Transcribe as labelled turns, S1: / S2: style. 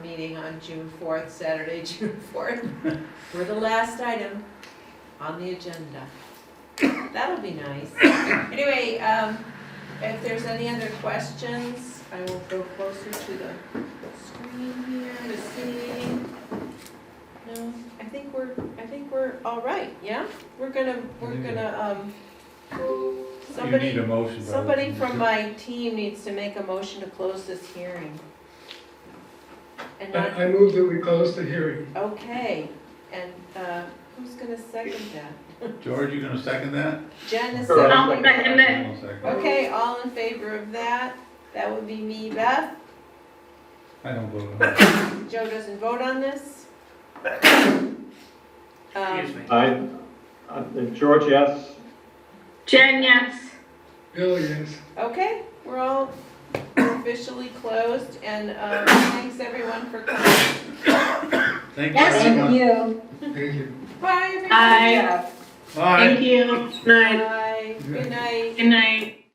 S1: meeting on June fourth, Saturday, June fourth, for the last item on the agenda. That'll be nice. Anyway, um, if there's any other questions, I will go closer to the screen here to see. No, I think we're, I think we're all right, yeah? We're gonna, we're gonna, um,
S2: You need
S1: somebody,
S2: a motion. by the-
S1: somebody from uh, my team needs to make a motion to close this hearing. And not
S3: I I move that we close the hearing.
S4: Uh-huh.
S1: Okay, and uh, who's gonna second that?
S2: George, you gonna second that?
S1: Jen is
S5: Sure.
S1: second.
S4: I'll second it.
S2: I'll second.
S1: Okay, all in favor of that? That would be me, Beth.
S2: I don't vote.
S1: Joe doesn't vote on this.
S4: Excuse
S1: Um,
S4: me.
S5: I, uh, George, yes?
S4: Jen, yes.
S3: Bill, yes.
S1: Okay, we're all officially closed, and um, thanks everyone for coming.
S2: Thank you
S6: Yes,
S2: very much.
S6: you.
S3: Thank you.
S1: Bye, everybody.
S4: Bye.
S6: Yeah.
S2: Bye.
S4: Thank you. Good night.
S1: Bye, good night.
S4: Good night.